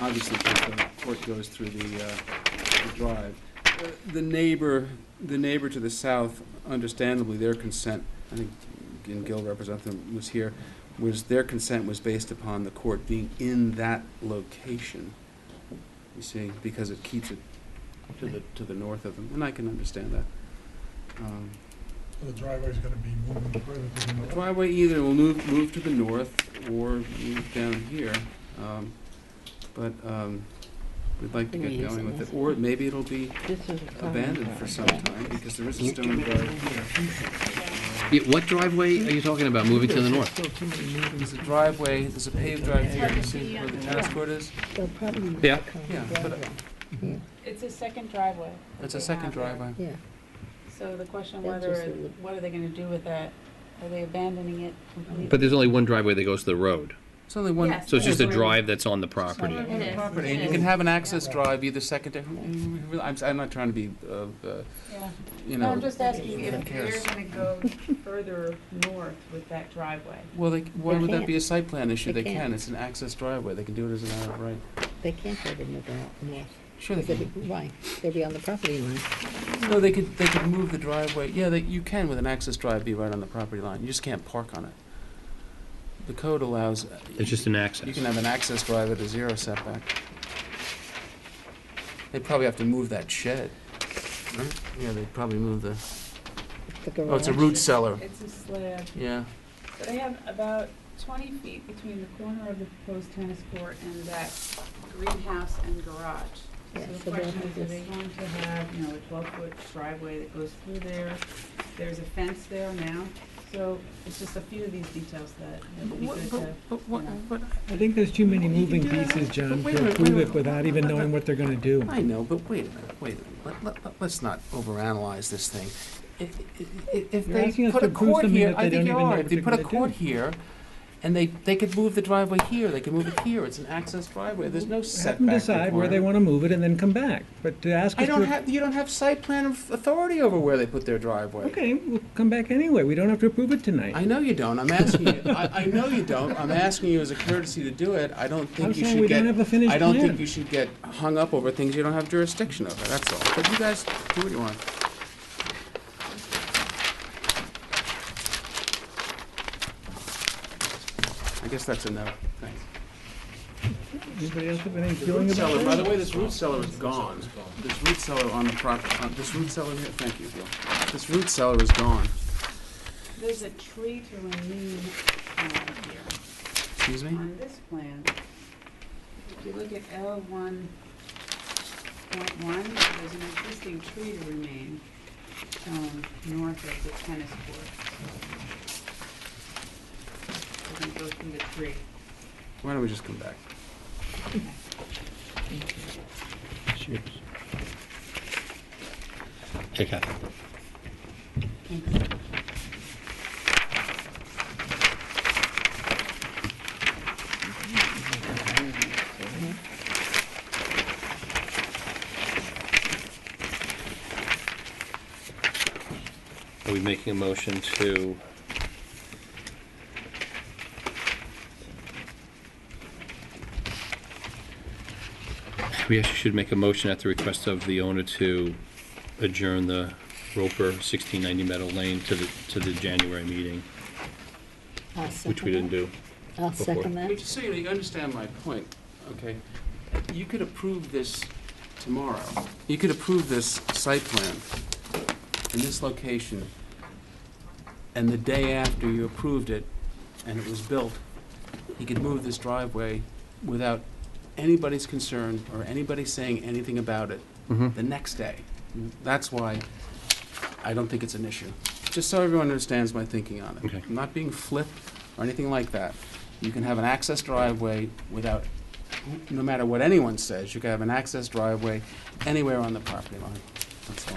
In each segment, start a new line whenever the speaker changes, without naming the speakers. obviously, because the court goes through the, uh, the drive. Uh, The neighbor, the neighbor to the south, understandably, their consent, I think, and Gil representative was here, was their consent was based upon the court being in that location, you see, because it keeps it to the, to the north of them, and I can understand that. Um,
So the driveway's gonna be moving further to the
The
north.
driveway either will move, move to the north or move down here, um, but, um, we'd like to
Can we
get
use
going
it
with
as
it,
a-
or maybe it'll be
This is
abandoned for some time, because there is a stone guard here.
Yeah, what driveway are you talking about moving to the north?
There's a driveway, there's a paved drive here, you see where the tennis court is?
They'll probably use
Yeah.
the common
Yeah, but- uh,
driveway. Yeah,
It's a second driveway.
That's
that
a
they
second
have there.
driveway.
yeah.
So the question
That's
whether,
just a little-
what are they gonna do with that? Are they abandoning it completely?
But there's only one driveway that goes to the road.
It's only one.
Yes.
So it's just a
Yes.
drive that's on the property.
It is,
property,
it
and you
is.
can have an access drive either secondary, I'm, s- I'm not trying to be, uh, uh,
Yeah.
you
No,
know.
I'm just asking
who
if they're
cares?
gonna go further north with that driveway.
Well, they, why
They
would that
can't.
be a site plan issue? They
They
can,
can't.
it's an access driveway, they can do it as an out of right.
They can't go to move out north.
Sure they
They'll
can.
be- Why? They'll be on the property line.
No, they could, they could move the driveway, yeah, they, you can with an access drive be right on the property line, you just can't park on it. The code allows,
It's just an
you
access.
can have an access drive at a zero setback. They'd probably have to move that shed, right? Yeah, they'd probably move the,
The
oh, it's a
garage.
root cellar,
It's a slab.
yeah.
They have about twenty feet between the corner of the proposed tennis court and that greenhouse and garage. So
Yeah,
the
so they'll
question
have
is, are they
this-
going to have, you know, a twelve-foot driveway that goes through there? There's a fence there now, so it's just a few of these details that that would be good to. what-
I think there's too many moving
Yeah,
pieces, John,
but wait
to
a minute,
approve
wait a
it without even knowing what they're gonna do.
I know, but wait a minute, wait a minute. Let, let, us not overanalyze this thing. If, if, if
You're asking
they
us
put
to
a
approve
court
something
here,
that
I
they
think
don't
you
even know
are.
what
If they
they're
put a
gonna
court
do.
here, and they, they could move the driveway here, they could move it here. It's an access driveway. There's no
Have them
setback
decide where they
requirement.
wanna move it and then come back, but to ask
I
us
don't
to.
have, you don't have site plan of authority over where they put their driveway.
Okay, we'll come back anyway, we don't have to approve it
I
tonight.
know you don't. I'm asking you. I, I know you don't. I'm asking you as a courtesy to do it. I don't
I'm
think you
saying
should
we don't
get.
have a finished
I don't think you
plan.
should get hung up over things you don't have jurisdiction over. That's all. But you guys do what you want. I guess that's enough. Thanks.
Anybody else have any
The
feeling
root cellar, by
about
the
that?
way, this root cellar is gone. This root cellar on the property. This root cellar here. Thank you, Bill. This root cellar is gone.
There's a tree to remain uh, here.
Excuse me.
on this plan, if you look at L one point one, there's an existing tree to remain, um, north of the tennis court. We're gonna go through the tree.
Why don't we just come back?
Hey, Catherine. Are we making a motion to? We actually should make a motion at the request of the owner to adjourn the Roper 1690 Meadow Lane to the, to the January meeting,
I'll
which we
second
didn't
that.
do.
I'll
before.
second
But
that.
just so you know, you understand my point, okay? You could approve this tomorrow. You could approve this site plan in this location, and the day after you approved it, and it was built, you could move this driveway without anybody's concern or anybody saying anything about it
Mhm.
the next day. That's why I don't think it's an issue. Just so everyone understands my thinking on it.
Okay.
I'm not being flip or anything like that. You can have an access driveway without, no matter what anyone says, you can have an access driveway anywhere on the property line. That's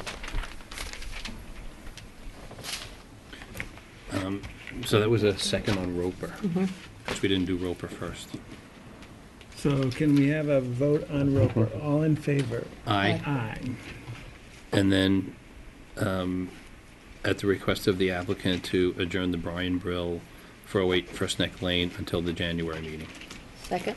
all.
Um, So that was a second on Roper,
Mhm.
because we didn't do Roper first.
So can we have a vote on Roper, all in favor?
Aye.
Aye.
And then, um, at the request of the applicant, to oh adjourn the Brian Brill 408 First Neck Lane until the January meeting.
Second?